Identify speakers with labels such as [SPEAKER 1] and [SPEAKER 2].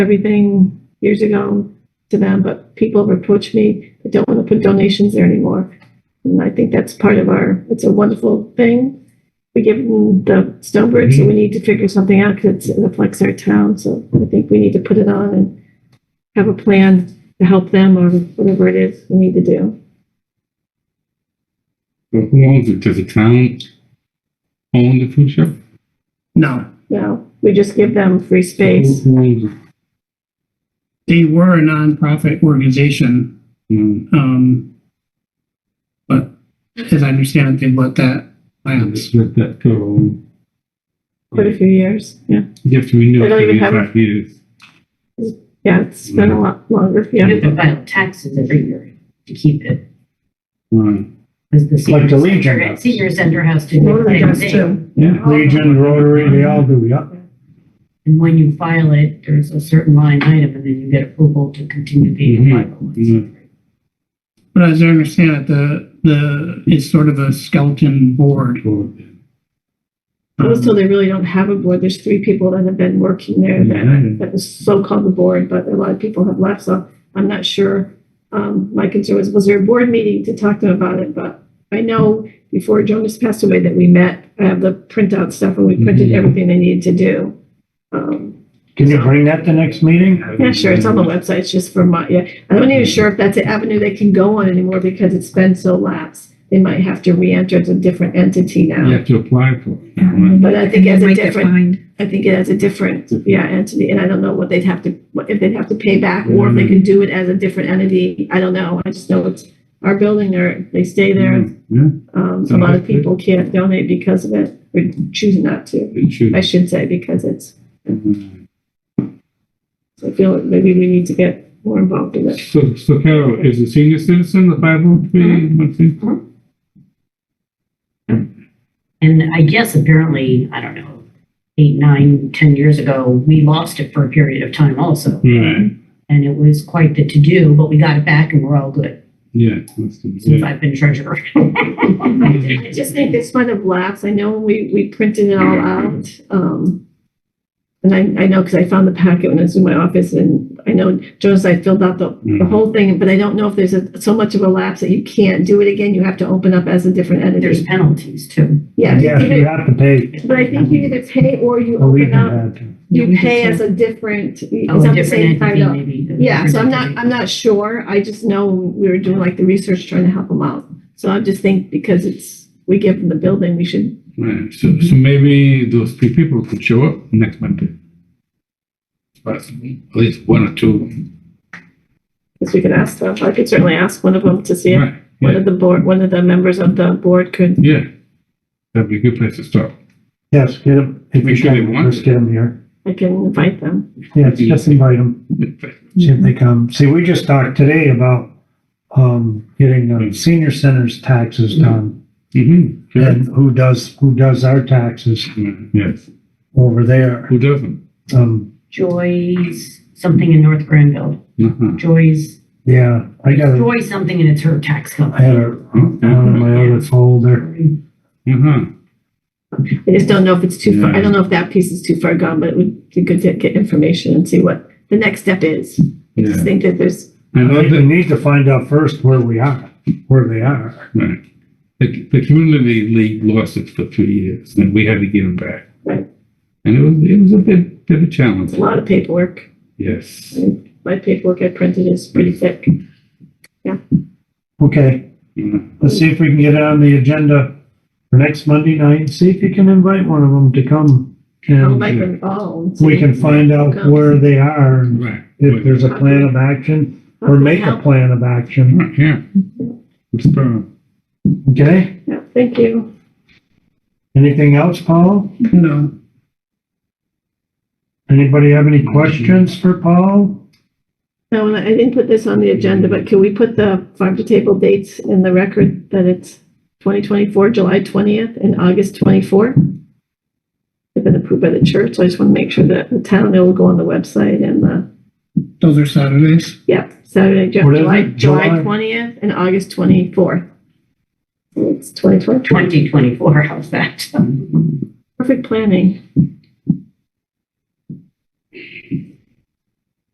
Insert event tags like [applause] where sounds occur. [SPEAKER 1] everything years ago to them, but people have approached me that don't want to put donations there anymore. And I think that's part of our, it's a wonderful thing. We give them the Stonebridge, so we need to figure something out because it affects our town. So I think we need to put it on and have a plan to help them or whatever it is we need to do.
[SPEAKER 2] Well, Who owns it? Does the town own the food shop?
[SPEAKER 3] No,
[SPEAKER 1] Now, we just give them free space.
[SPEAKER 2] Who who owns it?
[SPEAKER 3] they were a nonprofit organization,
[SPEAKER 2] No.
[SPEAKER 3] um, but as I understand it, they let that lapse.
[SPEAKER 2] Let that go. Mm-hmm.
[SPEAKER 1] Quite a few years, yeah.
[SPEAKER 2] You have to renew
[SPEAKER 1] They
[SPEAKER 2] it
[SPEAKER 1] don't even
[SPEAKER 2] every
[SPEAKER 1] have a-
[SPEAKER 2] five years.
[SPEAKER 1] Yeah, it's been a lot longer, yeah.
[SPEAKER 4] You have to file taxes every year to keep it.
[SPEAKER 2] Right.
[SPEAKER 4] Because the
[SPEAKER 5] Like
[SPEAKER 4] senior
[SPEAKER 5] the Legion
[SPEAKER 4] center,
[SPEAKER 5] does.
[SPEAKER 4] senior center has to do
[SPEAKER 1] Well,
[SPEAKER 4] the
[SPEAKER 1] I
[SPEAKER 4] same
[SPEAKER 1] guess,
[SPEAKER 4] thing.
[SPEAKER 1] too.
[SPEAKER 2] Yeah.
[SPEAKER 5] Legion, Rotary, they all do, yeah.
[SPEAKER 4] And when you file it, there's a certain line item and then you get approval to continue being
[SPEAKER 2] Mhm,
[SPEAKER 4] a 501c3.
[SPEAKER 2] mhm.
[SPEAKER 3] But as I understand it, the, the, it's sort of a skeleton board.
[SPEAKER 2] Well,
[SPEAKER 1] Also, they really don't have a board. There's three people that have been working there
[SPEAKER 2] Yeah.
[SPEAKER 1] that, that is so-called the board, but a lot of people have left, so I'm not sure. Um, my concern was, was there a board meeting to talk to them about it? But I know before Jonas passed away that we met, I have the printout stuff and we printed
[SPEAKER 2] Mhm.
[SPEAKER 1] everything they needed to do. Um,
[SPEAKER 5] Can you bring that to next meeting?
[SPEAKER 1] yeah, sure, it's on the website. It's just for my, yeah. I'm not even sure if that's an avenue they can go on anymore because it's been so lapsed. They might have to re-enter as a different entity now.
[SPEAKER 2] You have to apply for it.
[SPEAKER 6] Yeah.
[SPEAKER 1] But I think as
[SPEAKER 6] They
[SPEAKER 1] a
[SPEAKER 6] might get
[SPEAKER 1] different
[SPEAKER 6] fined.
[SPEAKER 1] I think it has a different, yeah, entity, and I don't know what they'd have to, what- if they'd have to pay back, or if they can do it as a different entity, I don't know, I just know it's our building, or they stay there,
[SPEAKER 2] Yeah,
[SPEAKER 1] um, a lot of people can't donate because of it, or choose not to,
[SPEAKER 2] it should.
[SPEAKER 1] I should say, because it's,
[SPEAKER 2] Mhm.
[SPEAKER 1] I feel like maybe we need to get more involved in it.
[SPEAKER 2] So, so Carol, is the senior citizen the five oh three one three?
[SPEAKER 4] And I guess apparently, I don't know, eight, nine, ten years ago, we lost it for a period of time also.
[SPEAKER 2] Right,
[SPEAKER 4] And it was quite the to-do, but we got it back and we're all good
[SPEAKER 2] yeah. that's the-
[SPEAKER 4] since
[SPEAKER 2] yeah.
[SPEAKER 4] I've been treasurer. [laughs]
[SPEAKER 1] I just think this might have lapsed, I know we, we printed it all out, um, and I, I know, because I found the packet when I was in my office, and I know, Jonas, I filled out the, the
[SPEAKER 2] Mhm.
[SPEAKER 5] Mm-hmm.
[SPEAKER 1] whole thing, but I don't know if there's a, so much of a lapse that you can't do it again, you have to open up as a different
[SPEAKER 4] There's
[SPEAKER 1] entity.
[SPEAKER 4] penalties too.
[SPEAKER 1] Yeah,
[SPEAKER 5] Yeah, you
[SPEAKER 1] you-
[SPEAKER 5] have to pay.
[SPEAKER 1] but I think you either pay or you
[SPEAKER 5] Well, we
[SPEAKER 1] open
[SPEAKER 5] can
[SPEAKER 1] up,
[SPEAKER 5] add to-
[SPEAKER 1] you pay as a different, it's
[SPEAKER 4] Oh,
[SPEAKER 1] not
[SPEAKER 4] a
[SPEAKER 1] the same
[SPEAKER 4] different
[SPEAKER 1] kind
[SPEAKER 4] entity
[SPEAKER 1] of.
[SPEAKER 4] maybe. a
[SPEAKER 1] Yeah, so I'm
[SPEAKER 4] different
[SPEAKER 1] not,
[SPEAKER 4] entity.
[SPEAKER 1] I'm not sure, I just know we were doing like the research trying to help them out, so I just think because it's, we give them the building, we should
[SPEAKER 2] Right, so, so maybe those three people could show up next Monday. But at least one or two.
[SPEAKER 1] Because we could ask them, I could certainly ask one of them to see if one
[SPEAKER 2] Right, yeah,
[SPEAKER 1] of the board, one of the members of the board could,
[SPEAKER 2] yeah. That'd be a good place to start.
[SPEAKER 5] Yes, get them, if
[SPEAKER 2] Make
[SPEAKER 5] you
[SPEAKER 2] sure they
[SPEAKER 5] can,
[SPEAKER 2] want
[SPEAKER 5] just
[SPEAKER 2] it.
[SPEAKER 5] get them here.
[SPEAKER 1] I can invite them.
[SPEAKER 5] Yeah, just invite them,
[SPEAKER 2] Mm-hmm.
[SPEAKER 5] see if
[SPEAKER 6] Mhm.
[SPEAKER 5] they come. See, we just talked today about, um, getting
[SPEAKER 2] Mm.
[SPEAKER 5] the senior center's taxes done
[SPEAKER 2] Mm-hmm,
[SPEAKER 5] and who does, who does our taxes
[SPEAKER 2] yes,
[SPEAKER 5] over there.
[SPEAKER 2] who doesn't?
[SPEAKER 5] Um,
[SPEAKER 4] Joy's something in North Granville.
[SPEAKER 2] Uh-huh.
[SPEAKER 4] Joy's,
[SPEAKER 5] yeah, I got a,
[SPEAKER 4] Joy something and it's her tax
[SPEAKER 5] I
[SPEAKER 4] company.
[SPEAKER 5] had a, one of my other folder.
[SPEAKER 2] Uh-huh.
[SPEAKER 1] I just don't know if it's too far, I
[SPEAKER 2] Yeah.
[SPEAKER 1] don't know if that piece is too far gone, but it would be good to get information and see what the next step is. I just
[SPEAKER 2] Yeah.
[SPEAKER 1] think that there's,
[SPEAKER 2] I know
[SPEAKER 5] We
[SPEAKER 2] that,
[SPEAKER 5] need to find out first where we are, where they are.
[SPEAKER 2] right. The, the community league lost it for three years and we had to give them back.
[SPEAKER 1] Right.
[SPEAKER 2] And it was, it was a bit, bit of a challenge,
[SPEAKER 1] a lot of paperwork,
[SPEAKER 2] yes.
[SPEAKER 1] my paperwork I printed is pretty thick.
[SPEAKER 5] Okay,
[SPEAKER 2] Yeah.
[SPEAKER 5] let's see if we can get it on the agenda for next Monday night, see if you can invite one of them to come.
[SPEAKER 1] I'll
[SPEAKER 5] And
[SPEAKER 1] invite them all. and
[SPEAKER 5] we
[SPEAKER 1] see
[SPEAKER 5] can find out where they are, and
[SPEAKER 2] Right.
[SPEAKER 5] if there's a plan of action, or make a plan of action,
[SPEAKER 2] Right, Yeah. It's, uh,
[SPEAKER 5] okay?
[SPEAKER 1] Yeah, Thank you.
[SPEAKER 5] Anything else, Paul?
[SPEAKER 3] No,
[SPEAKER 5] Anybody have any questions for Paul?
[SPEAKER 1] No, and I didn't put this on the agenda, but can we put the farm to table dates in the record that it's 2024, July 20th and August 24th? They've been approved by the church, so I just want to make sure that the town, it will go on the website and the,
[SPEAKER 3] those are Saturdays.
[SPEAKER 1] yeah, Saturday, Ju-
[SPEAKER 5] What is
[SPEAKER 1] July,
[SPEAKER 5] it?
[SPEAKER 1] July
[SPEAKER 5] July?
[SPEAKER 1] 20th and August 24th. It's 2024,
[SPEAKER 4] 2024, how's that?
[SPEAKER 5] Mm-hmm.
[SPEAKER 1] perfect planning.